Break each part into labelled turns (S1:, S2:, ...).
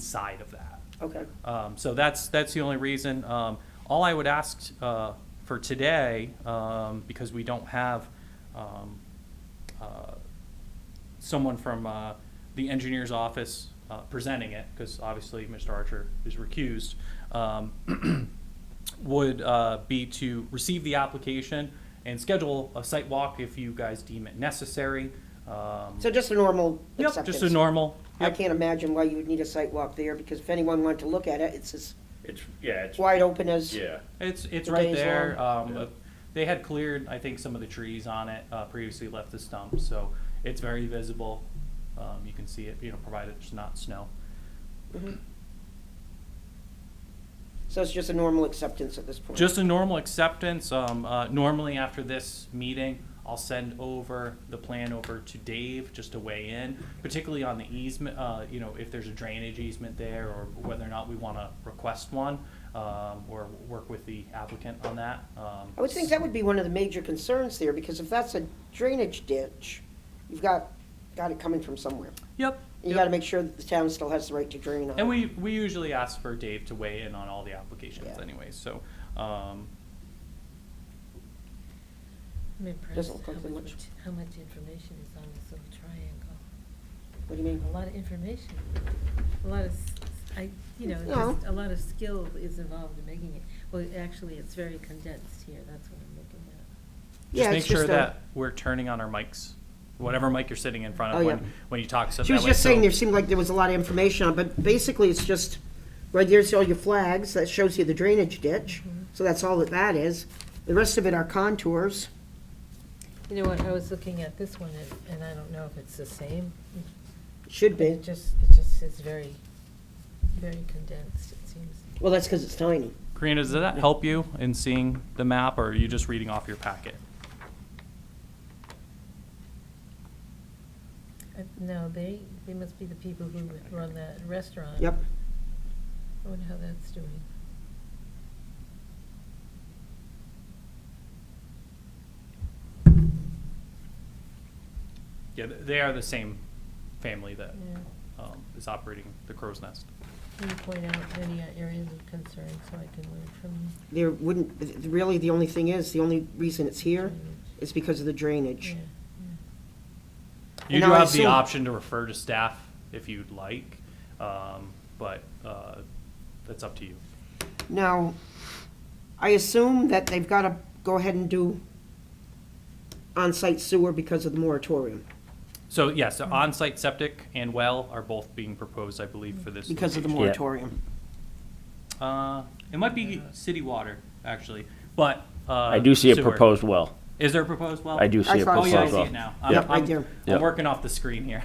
S1: inside of that.
S2: Okay,
S1: Um, So that's, that's the only reason. Um, All I would ask uh, for today, um, because we don't have um, uh, someone from uh, the engineer's office uh, presenting it, because obviously Mr. Archer is recused, um, would uh, be to receive the application and schedule a site walk if you guys deem it necessary. Um,
S2: so just a normal
S1: Yep,
S2: acceptance?
S1: just a normal.
S2: I
S1: yep.
S2: can't imagine why you would need a site walk there, because if anyone wanted to look at it, it's as
S3: It's, yeah, it's,
S2: wide open as.
S3: yeah.
S1: It's, it's
S2: The
S1: right
S2: days
S1: there. Um,
S3: Yeah.
S1: uh, They had cleared, I think, some of the trees on it, uh, previously left the stump, so it's very visible. Um, you can see it, you know, provided it's not snow.
S2: Mhm. So it's just a normal acceptance at this point?
S1: Just a normal acceptance, um, uh, normally after this meeting, I'll send over the plan over to Dave just to weigh in, particularly on the easement, uh, you know, if there's a drainage easement there or whether or not we wanna request one, um, or work with the applicant on that. Um,
S2: I would think that would be one of the major concerns there, because if that's a drainage ditch, you've got, got it coming from somewhere.
S1: Yep.
S2: You
S1: yep.
S2: gotta make sure that the town still has the right to drain on it.
S1: And we, we usually ask for Dave to weigh in on all the applications
S2: Yeah.
S1: anyway, so, um,
S4: I'm impressed
S2: Doesn't look
S4: how
S2: like there
S4: much,
S2: much.
S4: how much information is on this little triangle.
S2: What do you mean?
S4: A lot of information, a lot of, s- I, you know,
S2: No.
S4: just a lot of skill is involved in making it. Well, actually, it's very condensed here, that's what I'm looking at.
S2: Yeah,
S1: just make
S2: it's
S1: sure
S2: a-
S1: that we're turning on our mics, whatever mic you're sitting in front
S2: Oh,
S1: of
S2: yeah.
S1: when, when you talk, so that
S2: She
S1: way.
S2: was just saying
S1: so-
S2: there seemed like there was a lot of information on, but basically it's just, right there's all your flags, that shows you the drainage ditch, so that's all that that is. The rest of it are contours.
S4: You know what, I was looking at this one, and- and I don't know if it's the same.
S2: Should be.
S4: It just, it just is very, very condensed, it seems.
S2: Well, that's because it's tiny.
S1: Karina, does that help you in seeing the map, or are you just reading off your packet?
S4: Uh, No, they, they must be the people who run that restaurant.
S2: Yep.
S4: I wonder how that's doing.
S1: Yeah, th- they are the same family that,
S4: Yeah.
S1: um, is operating the Crow's Nest.
S4: Can you point out any uh, areas of concern so I can learn from you?
S2: There wouldn't, really, the only thing is, the only reason it's here is because of the
S4: Yeah,
S2: drainage.
S4: yeah.
S1: You
S2: And
S1: do
S2: I
S1: have the
S2: assume-
S1: option to refer to staff if you'd like, um, but, uh, that's up to you.
S2: Now, I assume that they've got to go ahead and do on-site sewer because of the moratorium,
S1: So yes, the on-site septic and well are both being proposed, I believe, for this.
S2: because of the
S1: location.
S2: moratorium.
S1: Uh, it might be city water, actually, but.
S3: I do see a
S1: it
S3: proposed well.
S1: Is there a proposed well?
S3: I do see
S2: I
S3: a
S2: thought-
S1: Oh,
S3: proposed
S1: yeah, I
S3: well.
S1: see it now. I'm-
S3: Yeah.
S2: Yep, right
S1: I'm-
S2: there.
S1: I'm
S3: Yep.
S1: working off the screen here.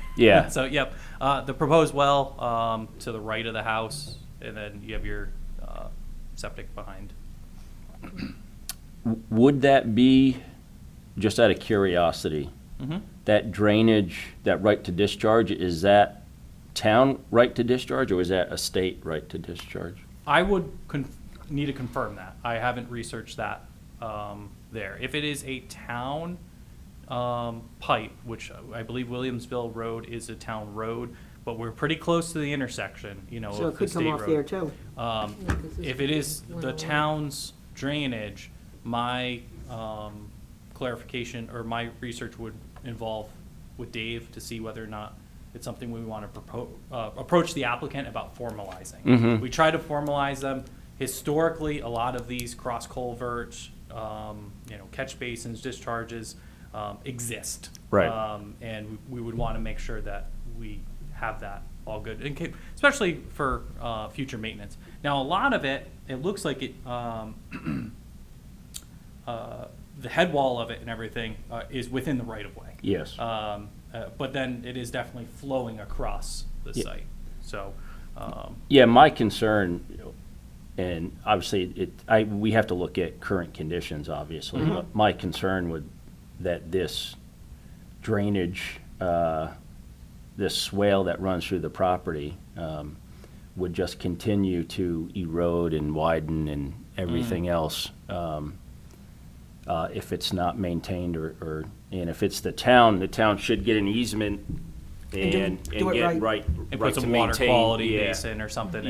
S3: Yeah.
S1: So, yep, uh, the proposed well, um, to the right of the house, and then you have your, uh, septic behind.
S3: Would that be, just out of curiosity,
S1: Mhm.
S3: that drainage, that right to discharge, is that town right to discharge or is that a state right to discharge?
S1: I would con- need to confirm that. I haven't researched that um, there. If it is a town um, pipe, which I believe Williamsville Road is a town road, but we're pretty close to the intersection, you know,
S2: So it
S1: of the
S2: could come
S1: state
S2: off there,
S1: road.
S2: too.
S1: Um,
S4: Yeah, 'cause it's
S1: If it is
S4: one
S1: the
S4: oh one.
S1: town's drainage, my um, clarification or my research would involve with Dave to see whether or not it's something we want to propose, approach the applicant about formalizing.
S3: Mhm.
S1: We try to formalize them. Historically, a lot of these cross culverts, um, you know, catch basins, discharges, um, exist.
S3: Right.
S1: Um, and we would want to make sure that we have that all good, in ca- especially for, uh, future maintenance. Now, a lot of it, it looks like it, um, uh, the head wall of it and everything, uh, is within the right of way.
S3: Yes.
S1: Um, uh, but then it is definitely flowing across the
S3: Yeah.
S1: site, so, um,
S3: Yeah, my concern, and obviously it, I, we have to look at current conditions, obviously.
S2: Mm-hmm.
S3: but My concern would, that this drainage, uh, this swale that runs through the property, um, would just continue to erode and widen and
S2: Mm.
S3: everything else, um, uh, if it's not maintained or, or, and if it's the town, the town should get an easement
S2: And do-
S3: and,
S2: do
S3: and
S2: it
S3: get
S2: right.
S3: right,
S1: And
S3: right
S1: put
S3: to
S1: some water
S3: maintain,
S1: quality
S3: yeah.
S1: basin or something